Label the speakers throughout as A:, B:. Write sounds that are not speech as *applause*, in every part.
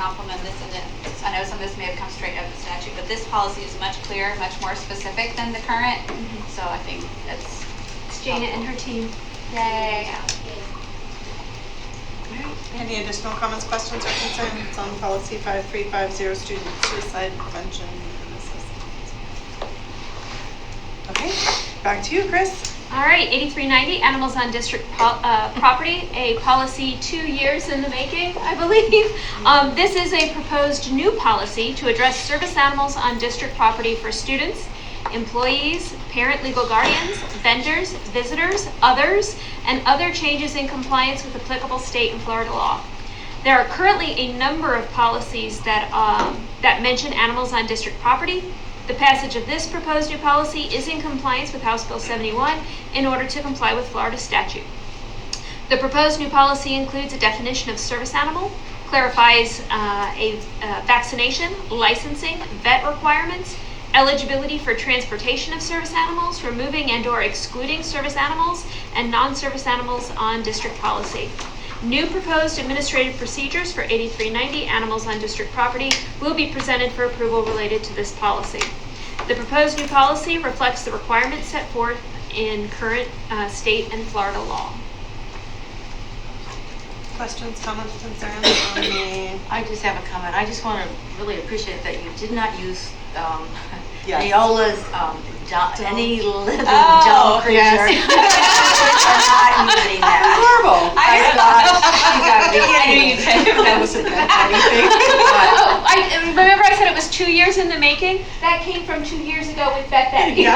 A: complement this, and then, I know some of this may have come straight out of the statute, but this policy is much clearer, much more specific than the current, so I think that's.
B: It's Jana and her team.
A: Yay.
C: Any additional comments, questions, or concerns on policy 5350, student suicide prevention and assessment? Okay, back to you, Chris.
B: All right, 8390, animals on district po- uh, property, a policy two years in the making, I believe. Um, This is a proposed new policy to address service animals on district property for students, employees, parent legal guardians, vendors, visitors, others, and other changes in compliance with applicable state and Florida law. There are currently a number of policies that, um, that mention animals on district property. The passage of this proposed new policy is in compliance with House Bill 71 in order to comply with Florida statute. The proposed new policy includes a definition of service animal, clarifies uh, a uh, vaccination, licensing, vet requirements, eligibility for transportation of service animals, removing and/or excluding service animals and non-service animals on district policy. New proposed administrative procedures for 8390 animals on district property will be presented for approval related to this policy. The proposed new policy reflects the requirements set forth in current uh, state and Florida law.
C: Questions, comments, concerns *coughs* on the,
D: I just have a comment. I just want to really appreciate that you did not use um, *laughs*
C: Yes.
D: Neola's um, doll- any living
C: Oh,
D: doll creature.
C: yes.
D: *laughs* I'm not using that.
C: horrible.
D: I *laughs* thought you got me.
C: That was
D: *laughs*
B: Oh, I I remember I said it was two years in the making. That came from two years ago with Beth Betty.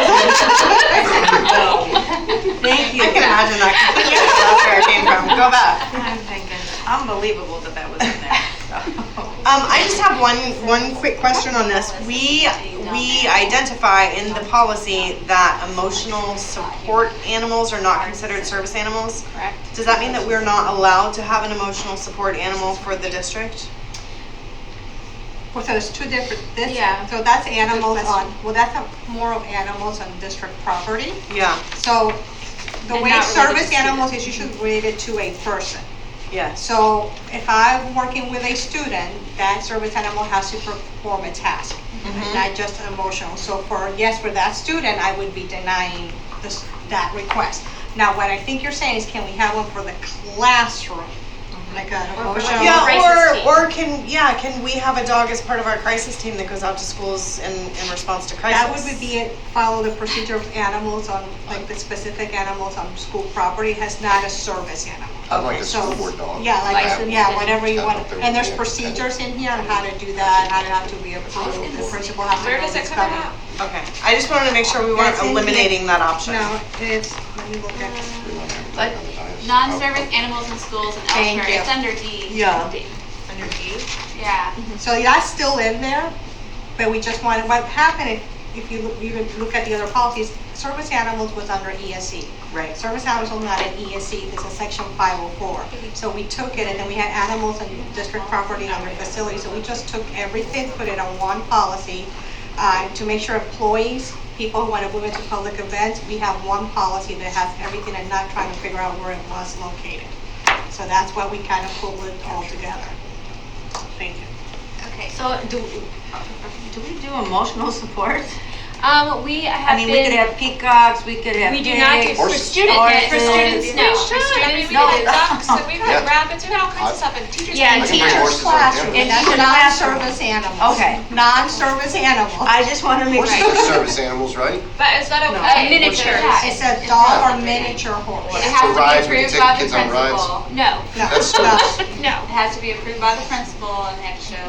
D: Thank you.
C: I can imagine that completely. That's where it came from. Go back.
D: I'm thinking, unbelievable that that was in there. So.
C: *laughs* Um, I just have one, one quick question on this. We, we identify in the policy that emotional support animals are not considered service animals.
A: *laughs* Correct.
C: Does that mean that we're not allowed to have an emotional support animal for the district?
E: Well, so there's two different, this,
A: Yeah.
E: so that's animals on, well, that's a- more of animals on district property.
C: Yeah,
E: So the
A: And
E: way
A: not related
E: service
A: to
E: animals is usually related to a person.
C: yes.
E: So if I'm working with a student, that service animal has to perform a task,
A: Mm-hmm.
C: Mm-hmm.
E: not just an emotional. So for, yes, for that student, I would be denying this, that request. Now, what I think you're saying is can we have one for the classroom? Like an
A: Mm-hmm. Or for
E: emotional.
A: like
C: Yeah,
B: crisis
C: or,
B: team.
C: or can, yeah, can we have a dog as part of our crisis team that goes out to schools in, in response to crisis?
E: That would be it, follow the procedure of animals on, like the specific animals on school property, has not a service animal.
F: I'd like a
E: So-
F: school board dog.
E: Yeah, like,
F: That-
E: yeah, whatever you want,
F: That's what they
E: and there's
F: would do.
E: procedures in here on how to do that, how to have to be approved, the principal has to know it's coming.
C: Okay, I just wanted to make sure we weren't
E: That's in here.
C: eliminating that option.
E: No, it's, let me look at,
F: We want everything
A: But
F: on the dais.
A: Non-service animals in schools and
E: Thank
A: elsewhere,
E: you.
A: it's under D.
C: Yeah.
A: D. Yeah.
E: so that's still in there, but we just wanted, what happened, if- if you, look- you look at the other policies, service animals was under ESE.
C: Right.
E: Service animals are not E an ESC, this is section 504. So we took it, and then we had animals and district property and other facilities, so we just took everything, put it on one policy uh, to make sure employees, people who want to move into public events, we have one policy that has everything and not trying to figure out where it was located. So that's why we kind of pulled it all together. Thank you.
A: Okay, so
D: So do, do we do emotional support?
B: Um, we
D: I
B: have
D: mean, we could
B: been,
D: have peacocks, we could have
B: we do not do,
D: pigs.
B: for
F: Horses.
B: students, for
D: Horses.
B: students, no. For
G: I
B: students,
G: mean, we
D: No.
A: *laughs*
G: had ducks, and we had
F: Yeah.
G: rabbits, we had all kinds of stuff, and teachers.
B: Yeah,
F: I
G: were-
F: can bring
B: teachers'
F: horses on
E: Classroom,
F: campus.
D: And-
E: that's non-service animals.
D: Okay.
E: Non-service animals.
D: I just want to make
F: Horses
D: sure.
F: are service animals, right?
G: But is that
C: No.
G: okay?
B: A miniature.
E: It said dog or miniature
A: it
E: horse.
F: For
A: has to
F: rides,
A: be
F: we can
A: approved
F: take
A: by the
F: kids on rides.
A: principal.
B: No,
E: No,
F: That's
E: no.
F: service.
B: no.
A: It has to be approved by the principal and they have to show.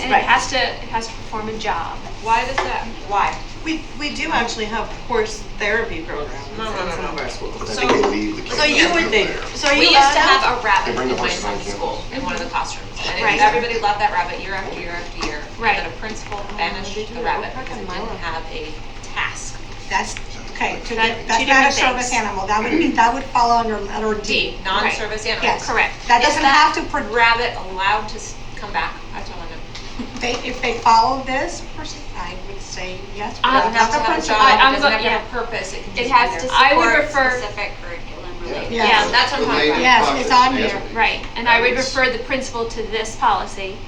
B: And
D: Right.
B: it has to, it has to perform a job.
G: Why does that?
D: Why?
C: We, we do actually have horse therapy programs in some of our schools.
F: I think they leave the kids.
D: So you would
F: over
D: think,
F: there.
D: so
G: We
D: you
G: used to
D: have,
G: have a rabbit
F: They bring the
G: always
F: horses
G: in
F: on campus.
G: school in one of the classrooms, and
B: Right.
G: it- everybody loved that rabbit year after year after year. And
B: Right.
G: then a principal banished the rabbit because it didn't have a task.
E: That's, okay, to-
B: That-
E: that's
B: two
E: not a
B: different
E: service
B: things.
E: animal, that would be, that would fall under letter
G: D,
E: D.
G: non-service animal.
E: Yes.
B: Correct.
E: That
G: Is
E: doesn't have to,
G: that
E: pro-
G: Rabbit allowed to s- come back? That's what I want to know.
E: they, if they follow this person, I would say yes. but
B: Uh,
E: that's not
G: That's
E: the
G: another
E: principle.
B: I-
G: job,
B: I'm go-
G: it doesn't have to
B: yeah.
G: have a purpose, it can just
A: It
G: be
A: has to
G: there.
B: I would
A: support
B: refer-
A: specific curriculum related.
F: Yeah.
B: Yeah,
E: that's
G: what I'm talking
F: Related
E: about. Yes, it's
F: topics,
E: on
F: yes.
E: here.
B: Right, and I would refer the principal to this policy